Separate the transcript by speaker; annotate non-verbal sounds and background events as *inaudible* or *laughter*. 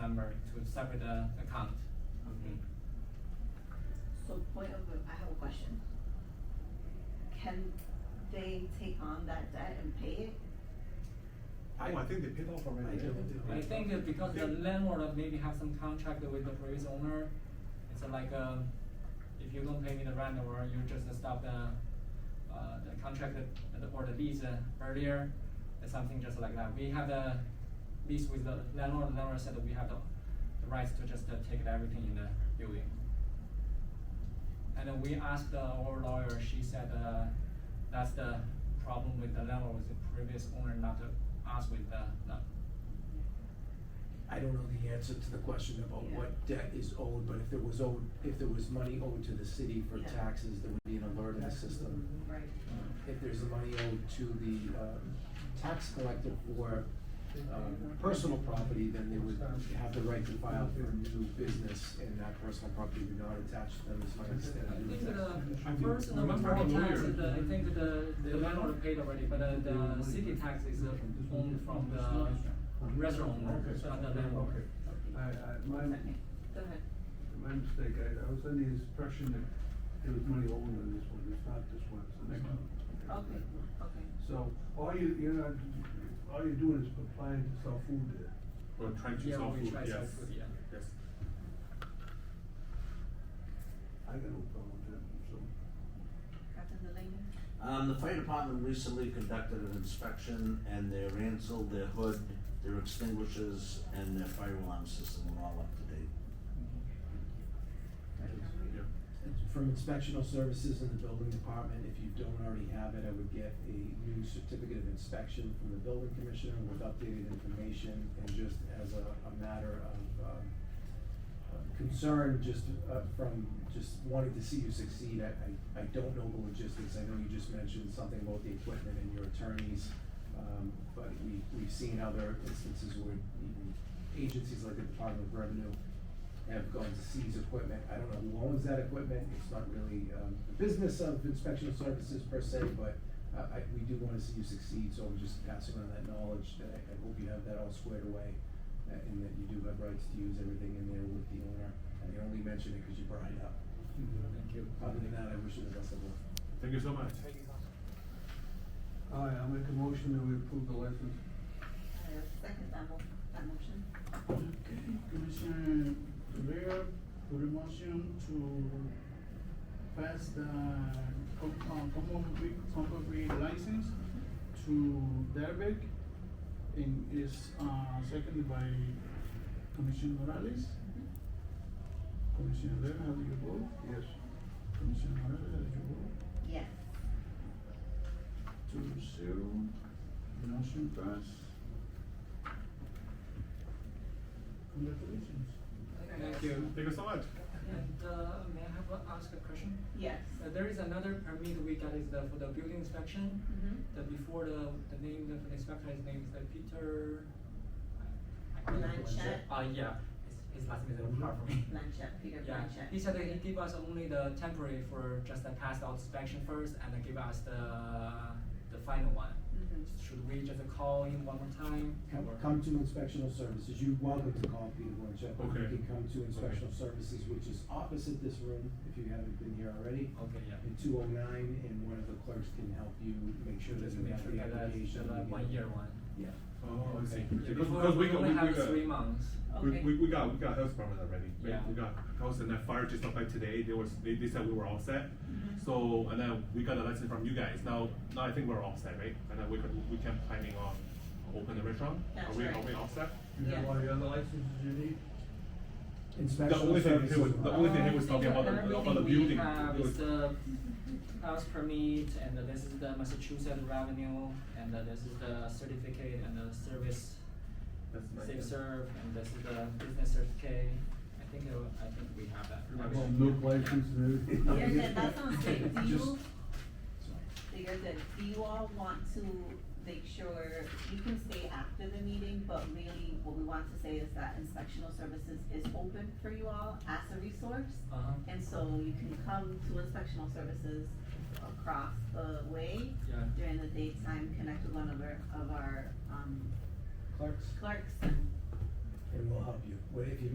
Speaker 1: separate uh, account.
Speaker 2: Okay.
Speaker 3: Mm-hmm. So point of, I have a question. Can they take on that debt and pay it?
Speaker 2: Oh, I think they paid off already.
Speaker 4: I
Speaker 2: right?
Speaker 4: don't
Speaker 2: They
Speaker 4: know.
Speaker 2: paid
Speaker 1: I
Speaker 2: off.
Speaker 1: think that because the
Speaker 2: They-
Speaker 1: landlord maybe have some contract with the previous owner, it's like, um, if you don't pay me the rent or you just stop the, uh, the contract that- or the lease uh, earlier, it's something just like that. We have the lease with the landlord, the landlord said that we have the, the rights to just uh, take everything in the building. And then we asked uh, our lawyer, she said, uh, that's the problem with the landlord, with the previous owner, not to us with the, the
Speaker 4: I don't know the answer to the question about
Speaker 3: Yeah.
Speaker 4: what debt is owed, but if there was owed, if there was money owed to the city for
Speaker 3: Yeah.
Speaker 4: taxes, there would be an alert in the system.
Speaker 3: Right.
Speaker 4: If there's money owed to the, um, tax collector for, um, personal property, then they would have the right to file for a new business, and that personal property would not attach to them, is my
Speaker 1: I think the
Speaker 4: understanding.
Speaker 1: first and the property tax, the, I think the, the landlord paid already, but uh, the city tax is uh, owned from the restaurant owner, not the landlord.
Speaker 5: Okay, I, I, my,
Speaker 3: Okay, Go ahead.
Speaker 5: my mistake, I, I was under the impression that there was money owed on this one, it's not this one, it's the next one.
Speaker 3: Okay, okay.
Speaker 5: So, all you, you're not, all you're doing is applying to sell food there.
Speaker 6: Or trying to
Speaker 1: Yeah,
Speaker 6: sell
Speaker 1: we
Speaker 6: food,
Speaker 1: try
Speaker 6: yes.
Speaker 1: sell food, yeah.
Speaker 6: Yes.
Speaker 5: I got no problem with that, so.
Speaker 3: Captain Delaney?
Speaker 7: Um, the fire department recently conducted an inspection and their ansel, their hood, their extinguishers, and their fire alarm system were all up to date.
Speaker 6: Yeah.
Speaker 4: From inspectional services in the building department, if you don't already have it, I would get a new certificate of inspection from the building commissioner with updated information, and just as a, a matter of, um, of concern, just, uh, from, just wanting to see you succeed, I, I, I don't know the logistics, I know you just mentioned something about the equipment and your attorneys, um, but we, we've seen other instances where even agencies like the Department of Revenue have gone to seize equipment. I don't know who owns that equipment, it's not really, um, the business of inspection services per se, but, uh, I, we do wanna see you succeed, so I'm just passing on that knowledge, that I, I hope you have that all squared away, uh, and that you do have rights to use everything in there with the owner, I only mention it because you brought it up.
Speaker 1: Thank you.
Speaker 4: Other than that, I wish you the best of luck.
Speaker 6: Thank you so much.
Speaker 5: All right, I'll make a motion that we approve the license.
Speaker 3: I second that mo- that motion.
Speaker 8: Okay, Commissioner Rivera put a motion to pass the com- uh, compulsory, compulsory license
Speaker 3: Mm-hmm.
Speaker 8: to Derbeck. And is, uh, seconded by Commissioner Morales. Commissioner Rivera, how do you vote?
Speaker 5: Yes.
Speaker 8: Commissioner Morales, how do you vote?
Speaker 3: Yes.
Speaker 8: Two zero, motion passed. Congratulations.
Speaker 1: Thank you.
Speaker 6: Thank you so much.
Speaker 1: And, uh, may I have, a- ask a question?
Speaker 3: Yes.
Speaker 1: Uh, there is another permit we got is the, for the building inspection,
Speaker 3: Mm-hmm.
Speaker 1: that before the, the name, of the inspector's name is uh, Peter. I- I can't remember.
Speaker 3: Blanchett?
Speaker 1: Uh, yeah, his, his last name is a little hard for me.
Speaker 3: Blanchett, Peter
Speaker 1: Yeah,
Speaker 3: Blanchett. Mm-hmm.
Speaker 1: he said that he gave us only the temporary for just the past out inspection first and then give us the, the final one.
Speaker 3: Mhm.
Speaker 1: Should we just call him one more time?
Speaker 4: Come,
Speaker 1: or-
Speaker 4: come to inspectional services, you're welcome to call Peter Blanchett, but you
Speaker 6: Okay.
Speaker 4: can come to inspectional services, which is opposite this room, if you haven't been here already.
Speaker 1: Okay, yeah.
Speaker 4: in two oh nine, and one of the clerks can help you make sure that
Speaker 1: Just
Speaker 4: you
Speaker 1: make
Speaker 4: have
Speaker 1: sure
Speaker 4: the
Speaker 1: that that's
Speaker 4: application.
Speaker 1: the
Speaker 4: you
Speaker 1: one
Speaker 4: get-
Speaker 1: year one.
Speaker 4: Yeah.
Speaker 6: Oh, I
Speaker 1: Okay.
Speaker 6: see.
Speaker 1: Yeah,
Speaker 6: Because,
Speaker 1: before
Speaker 6: because we
Speaker 1: we
Speaker 6: got,
Speaker 1: only
Speaker 6: we, we
Speaker 1: have
Speaker 6: got-
Speaker 1: three months.
Speaker 6: We,
Speaker 3: Okay.
Speaker 6: we, we got, we got health permit already. We-
Speaker 1: Yeah.
Speaker 6: We got house and then fire just applied today, they was, they, they said we were all set.
Speaker 1: Mm-hmm.
Speaker 6: So, and then we got a license from you guys, now, now I think we're all set, right? And then we could, we can planning on open the restaurant?
Speaker 3: That's
Speaker 6: Are we,
Speaker 3: right.
Speaker 6: are we all set?
Speaker 5: You have
Speaker 3: Yes.
Speaker 5: all the other licenses you need?
Speaker 6: The
Speaker 4: Inspectional
Speaker 6: only thing, he
Speaker 4: services.
Speaker 6: was- the only thing he
Speaker 1: Um,
Speaker 6: was talking about, the- about the
Speaker 1: everything we
Speaker 6: building.
Speaker 1: have
Speaker 6: It
Speaker 1: is
Speaker 6: was-
Speaker 1: the
Speaker 4: Mm-hmm.
Speaker 1: house permit, and this is the Massachusetts revenue, and this is the certificate and the service,
Speaker 6: That's my-
Speaker 1: safe serve, and this is the business certificate. I think, it wa- I think we have that.
Speaker 6: Like
Speaker 5: Well,
Speaker 1: Everything.
Speaker 5: milk license and everything.
Speaker 3: You're good, that sounds
Speaker 8: *laughs*
Speaker 3: great. Do
Speaker 4: Just-
Speaker 3: you,
Speaker 4: Sorry.
Speaker 3: you're good. Do you all want to make sure, you can stay after the meeting, but really what we want to say is that inspectional services is open for you all as a resource.
Speaker 1: Uh-huh,
Speaker 3: And so you can come to inspectional services across the way
Speaker 1: yeah.
Speaker 3: during the daytime, connect with one of our, of our, um,
Speaker 4: Clerks,
Speaker 3: clerks and
Speaker 4: and we'll help you. Well, if you